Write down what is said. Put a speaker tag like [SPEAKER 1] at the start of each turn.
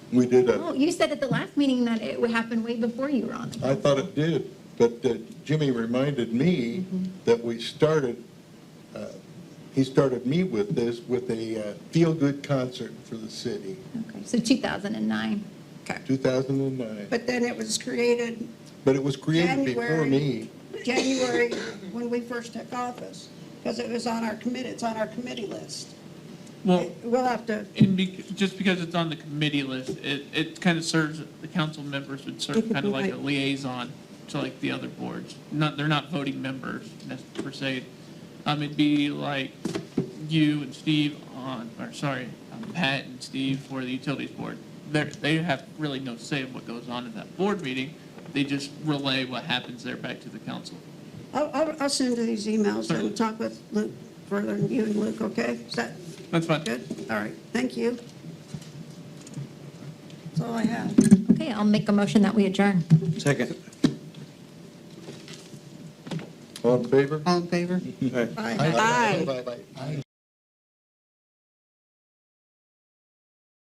[SPEAKER 1] We did
[SPEAKER 2] Oh,
[SPEAKER 1] that.
[SPEAKER 2] you said at the last meeting that it would happen way before you were on the
[SPEAKER 1] I thought it did, but uh, Jimmy reminded me
[SPEAKER 3] Mm-hmm.
[SPEAKER 1] that we started, uh, he started me with this, with a uh, feel-good concert for the city,
[SPEAKER 2] Okay, so 2009.
[SPEAKER 4] Okay.
[SPEAKER 1] 2009.
[SPEAKER 3] But then it was created
[SPEAKER 1] But it was created before
[SPEAKER 3] January.
[SPEAKER 1] me.
[SPEAKER 3] January when we first took office, because it was on our committee, it's on our committee list.
[SPEAKER 5] Well,
[SPEAKER 3] We'll have to,
[SPEAKER 5] and be, just because it's on the committee list, it, it kind of serves, the council members would serve kind of like a liaison to like the other boards. Not, they're not voting members nec- per se. Um, it'd be like you and Steve on, or sorry, um, Pat and Steve for the utilities board. They're, they have really no say in what goes on in that board meeting. They just relay what happens there back to the council.
[SPEAKER 3] I'll, I'll, I'll send you these emails and talk with Luke further, and you and Luke, okay? Is that
[SPEAKER 5] That's fine.
[SPEAKER 3] good? All right, thank you. That's all I have.
[SPEAKER 2] Okay, I'll make a motion that we adjourn.
[SPEAKER 6] Second.
[SPEAKER 1] All in favor?
[SPEAKER 4] All in favor?
[SPEAKER 6] All right.
[SPEAKER 3] Bye.
[SPEAKER 1] Aye. Bye-bye.